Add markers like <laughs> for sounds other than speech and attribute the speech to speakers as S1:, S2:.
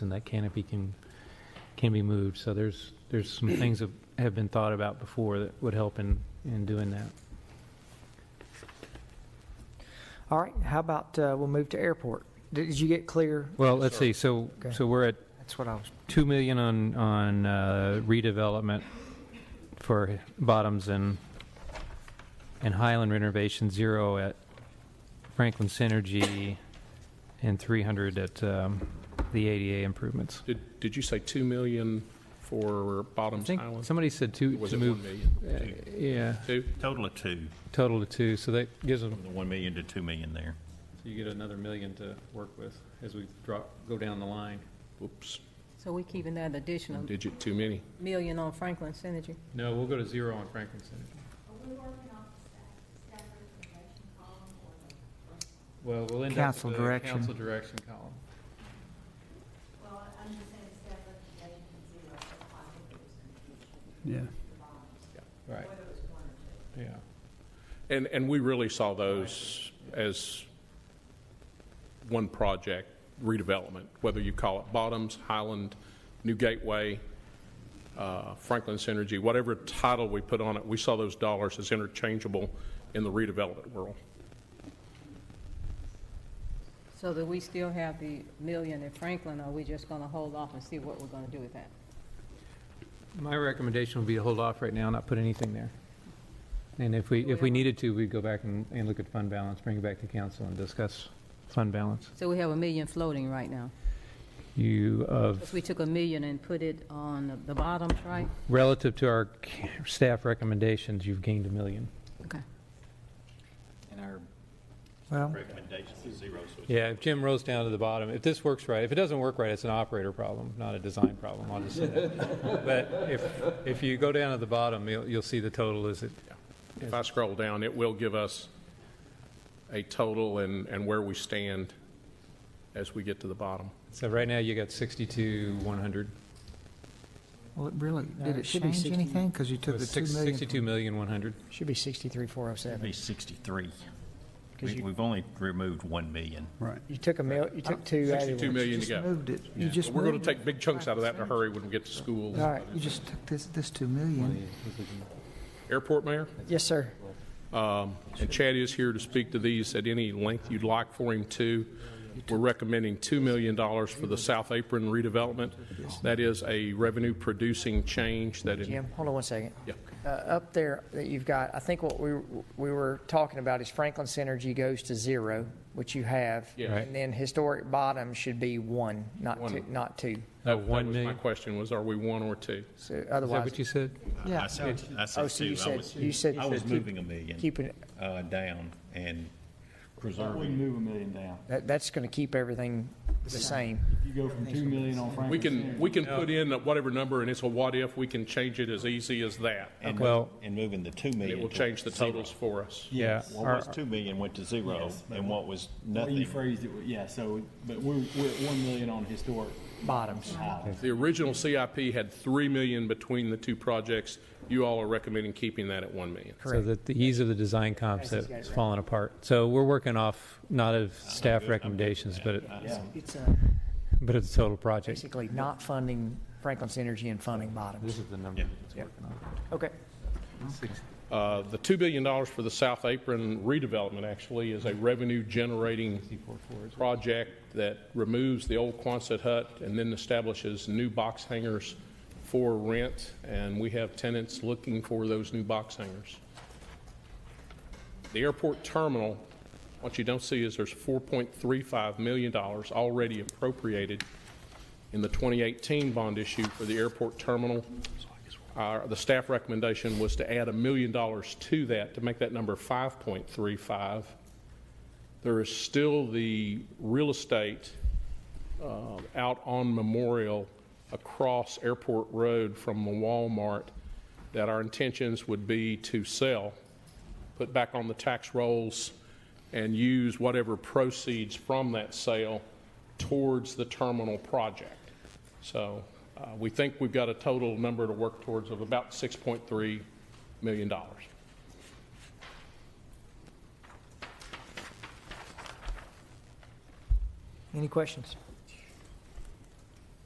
S1: and that canopy can, can be moved. So there's, there's
S2: <clears throat>
S1: some things that have been thought about before that would help in, in doing that.
S3: All right, how about, uh, we'll move to airport. Did did you get clear?
S1: Well, let's see, so,
S3: Okay.
S1: so we're at
S3: That's what I was,
S1: 2 million on, on uh, redevelopment for Bottoms and, and Highland renovation, zero at Franklin Synergy, and 300 at um, the ADA improvements.
S2: Did, did you say 2 million for
S1: I
S2: Bottoms
S1: think
S2: Island?
S1: somebody said two,
S2: Was
S1: to
S2: it 1
S1: move,
S2: million?
S1: uh, yeah,
S2: Two?
S4: Total of two,
S1: total to two, so that gives them
S4: from the 1 million to 2 million there.
S1: So you get another million to work with as we drop, go down the line.
S2: Whoops,
S5: So we keeping that additional
S2: digit too many.
S5: million on Franklin Synergy?
S1: No, we'll go to zero on Franklin Center. Well, we'll end up
S3: Council
S1: with the
S3: direction.
S1: council direction column.
S6: Yeah,
S1: Right. Yeah.
S2: And, and we really saw those as one project redevelopment, whether you call it Bottoms, Highland, New Gateway, uh, Franklin Synergy, whatever title we put on it, we saw those dollars as interchangeable in the redevelopment world.
S5: So that we still have the million in Franklin, or we just gonna hold off and see what we're gonna do with that?
S1: My recommendation would be to hold off right now, not put anything there. And if we, if we needed to, we'd go back and, and look at fund balance, bring it back to council and discuss fund balance.
S5: So we have a million floating right now,
S1: You, of,
S5: because we took a million and put it on the bottoms, right?
S1: relative to our c- staff recommendations, you've gained a million.
S5: Okay.
S4: And our
S3: well,
S4: recommendation is zero, so
S1: Yeah, if Jim rolls down to the bottom, if this works right, if it doesn't work right, it's an operator problem, not a design problem, I'll just say <laughs> that. But if, if you go down to the bottom, you'll, you'll see the total is it,
S2: If I scroll down, it will give us a total and, and where we stand as we get to the bottom.
S1: so right now you got sixty-two, one hundred.
S7: Well, it really,
S3: No,
S7: did
S3: Uh, it
S7: it
S3: should be
S7: change
S3: 60.
S7: anything? Because you took the 2 million. from-
S1: Sixty-two million, one hundred.
S3: should be
S4: it'd
S3: 63407.
S4: be 63.
S3: 'Cause
S4: We-
S3: you-
S4: We've only removed 1 million.
S6: right.
S3: You took a mil, you took two out of
S2: 62
S3: one.
S2: million to
S7: just
S2: go.
S7: moved it. You just
S2: We're going
S7: moved
S2: to
S7: it.
S2: take big chunks out of that in a hurry when we get to schools.
S3: All right,
S7: You just took this, this 2 million.
S2: Airport Mayor,
S3: yes, sir.
S2: and Chad is here to speak to these at any length you'd like for him to. We're recommending $2 million for the South Apron redevelopment. That is a revenue-producing change that, in-
S8: Jim, hold on one second.
S2: Yeah.
S8: Uh, Up there that you've got, I think what we, we were talking about is Franklin Synergy goes to zero, which you have.
S2: Yes.
S1: Right.
S8: And then historic bottom should be one, not two, not two.
S1: Oh,
S2: that was
S1: one
S2: my
S1: million,
S2: question, was are we one or two?
S8: So
S1: is that
S8: otherwise,
S1: what you said?
S7: Yeah.
S4: I said, I
S8: Oh,
S4: said
S8: so you
S4: two. I
S8: said-
S4: was-
S8: you said-
S4: I was moving a million
S8: keeping,
S4: uh, down and preserving. Move a million down.
S8: that, that's going to keep everything the same.
S9: You go from two million on Franklin.
S2: We can, we can put in whatever number, and it's a what-if, we can change it as easy as that.
S4: And
S1: Well-
S4: move- and moving the 2
S2: It
S4: million.
S2: will
S4: to
S2: change the
S4: zero.
S2: totals for us.
S1: Yeah.
S4: What was 2 million went to zero, and what was
S9: The way you
S4: nothing.
S9: phrased it, yeah, so, but we're, we're at one million on historic.
S8: Bottoms.
S9: highlands.
S2: The original CIP had 3 million between the two projects. You all are recommending keeping that at 1 million.
S1: So that the ease of the design concept is falling apart. So we're working off, not of staff recommendations, but, it-
S8: It's uh,
S1: but of the total project.
S8: basically not funding Franklin Synergy and funding bottoms.
S1: is the number that's working on.
S8: Okay.
S2: Uh, The $2 billion for the South Apron redevelopment actually is a revenue-generating project that removes the old Quonset hut and then establishes new box hangers for rent, and we have tenants looking for those new box hangers. The airport terminal, what you don't see is there's $4.35 million already appropriated in the 2018 bond issue for the airport terminal. Our, the staff recommendation was to add a million dollars to that to make that number 5.35. There is still the real estate uh, out on Memorial across Airport Road from the Walmart that our intentions would be to sell, put back on the tax rolls, and use whatever proceeds from that sale towards the terminal project. So uh, we think we've got a total number to work towards of about $6.3 million.
S8: Any questions?